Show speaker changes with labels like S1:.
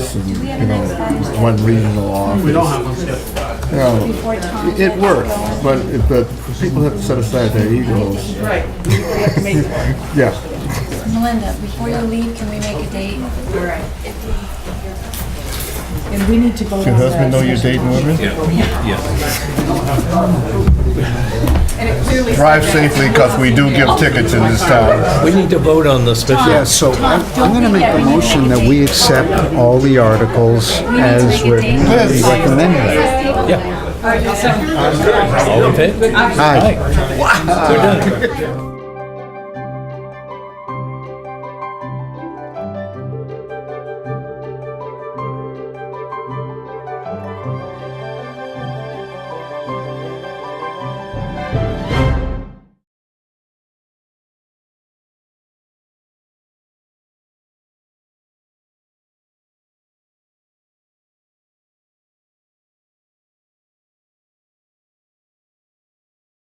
S1: office and, you know, one regional office.
S2: We don't have one scheduled.
S1: You know,
S3: Before Tom
S1: it
S3: gets
S1: works,
S3: going.
S1: but, but people have to set aside their egos.
S4: Right, we have to make it work.
S1: Yeah,
S3: Melinda, before you leave, can we make a date?
S4: All right. And we need to vote on
S1: your
S4: that.
S1: husband know you're dating women?
S5: Yeah, yeah.
S4: And it clearly.
S6: Drive safely, because we do give tickets in this town.
S5: We need to vote on the
S7: Yeah,
S5: special.
S7: so I'm,
S3: don't
S7: I'm gonna
S3: be
S7: make
S3: there.
S7: a
S3: We need to
S7: motion
S3: make a
S7: that we
S3: date.
S7: accept all the articles as
S3: make a
S7: written,
S3: date.
S7: as recommended.
S5: All in favor?
S7: Aye.
S5: We're done.